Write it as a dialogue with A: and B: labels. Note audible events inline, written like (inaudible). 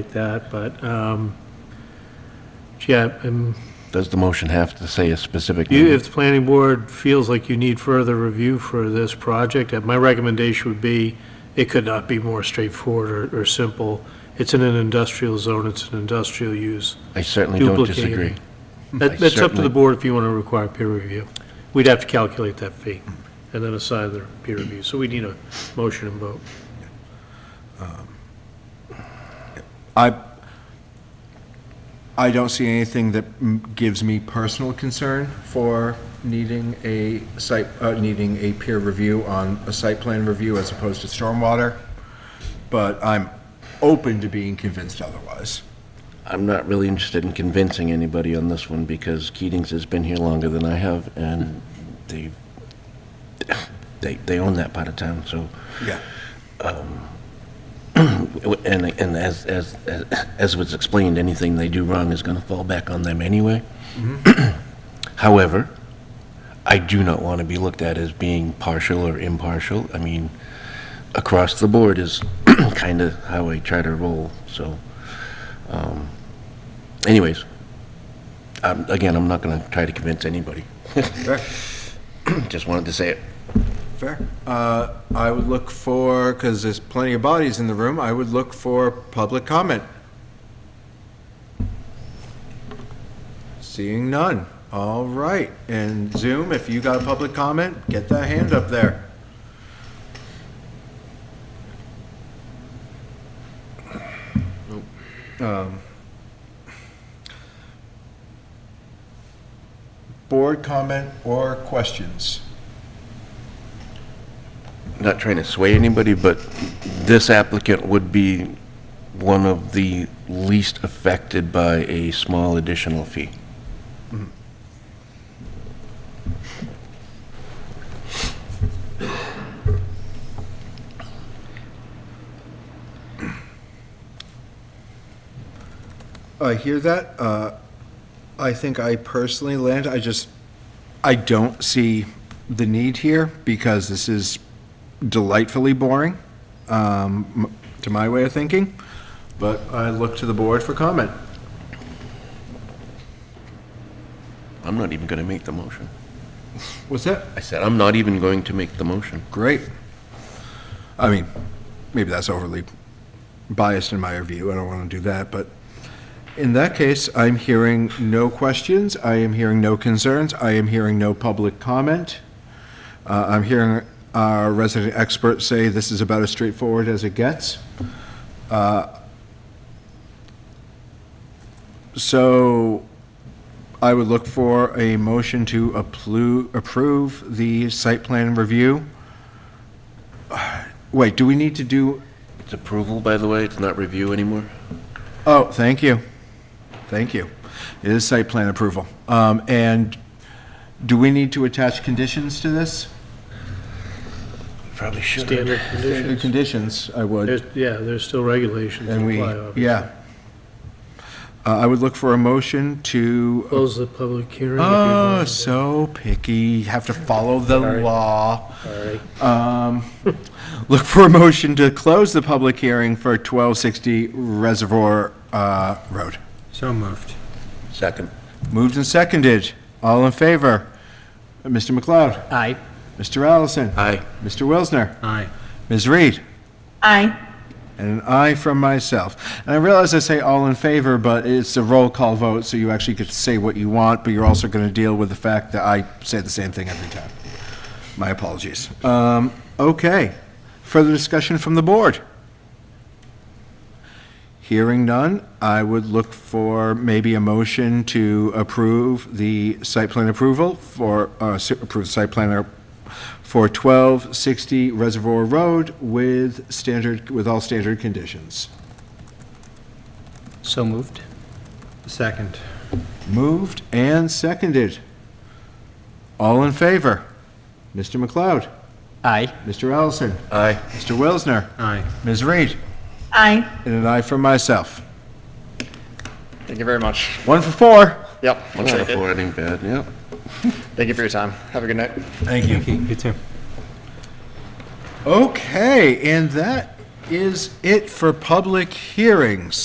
A: appreciate that, but, um, yeah, um,
B: Does the motion have to say a specific
A: you-
B: name?
A: if the planning board feels like you need further review for this project, uh, my recommendation would be, it could not be more straightforward or, or simple. It's in an industrial zone, it's an industrial use.
C: Mm-hmm.
B: I certainly don't
A: duplicate.
B: disagree. I
A: That, that's up to the
B: certainly-
A: board if you want to require peer review. We'd have to calculate that fee and then assign the peer review. So we need a motion and vote.
C: I, I don't see anything that m- gives me personal concern for needing a site, uh, needing a peer review on a site plan review as opposed to stormwater, but I'm open to being convinced otherwise.
B: I'm not really interested in convincing anybody on this one because Keating's has been here longer than I have and they, they, they own that part of town, so.
C: Yeah.
B: And, and as, as, as was explained, anything they do wrong is gonna fall back on them anyway. (clears throat) However, I do not want to be looked at as being partial or impartial. I mean, across the board is (clears throat) kind of how I try to roll, so. um, Anyways, um, again, I'm not gonna try to convince anybody. (clears throat)
C: Fair,
B: Just wanted to say it.
C: fair. Uh, I would look for, because there's plenty of bodies in the room, I would look for public comment. Seeing none. All right. And Zoom, if you got a public comment, get that hand up there. Um, Board comment or questions?
B: not trying to sway anybody, but this applicant would be one of the least affected by a small additional fee.
C: I hear that. Uh, I think I personally land, I just, I don't see the need here because this is delightfully boring, um, m- to my way of thinking. But I look to the board for comment.
B: I'm not even going to make the motion.
C: What's that?
B: I said, I'm not even going to make the motion.
C: Great. I mean, maybe that's overly biased in my view. I don't want to do that, but in that case, I'm hearing no questions. I am hearing no concerns. I am hearing no public comment. Uh, I'm hearing our resident expert say this is about as straightforward as it gets. Uh, So I would look for a motion to applu- approve the site plan review. Wait, do we need to do,
B: It's approval, by the way, it's not review anymore.
C: oh, thank you. Thank you. It is site plan approval. Um, and do we need to attach conditions to this?
B: Probably should.
A: Standard
C: The
A: conditions.
C: Conditions, I would.
A: There's, yeah, there's still regulations that
C: And we,
A: apply, obviously.
C: yeah. Uh, I would look for a motion to,
A: Close the public hearing. if you
C: oh,
A: want to.
C: so picky, have to follow the
A: Sorry.
C: law.
A: Sorry.
C: Um, look for a motion to close the public hearing for 1260 Reservoir, uh, Road.
D: So moved.
B: Second.
C: Moved and seconded. All in favor? Mr. McLeod?
D: Aye.
C: Mr. Allison?
B: Aye.
C: Mr. Wilsner?
D: Aye.
C: Ms. Reed?
E: Aye.
C: And an aye from myself. And I realize I say all in favor, but it's a roll call vote, so you actually get to say what you want, but you're also going to deal with the fact that I say the same thing every time. My apologies. Um, Okay. Further discussion from the board? Hearing none, I would look for maybe a motion to approve the site plan approval for, uh, s- approve the site plan ar- for 1260 Reservoir Road with standard, with all standard conditions.
D: So moved. Second.
C: Moved and seconded. All in favor? Mr. McLeod?
D: Aye.
C: Mr. Allison?
B: Aye.
C: Mr. Wilsner?
D: Aye.
C: Ms. Reed?
E: Aye.
C: And an aye for myself.
F: Thank you very much.
C: One for four.
F: Yep,
B: One
F: we'll
B: out
F: take
B: of
F: it.
B: four, it ain't bad, yeah.
F: Thank you for your time. Have a good night.
C: Thank you.
D: You too.
C: Okay, and that is it for public hearings.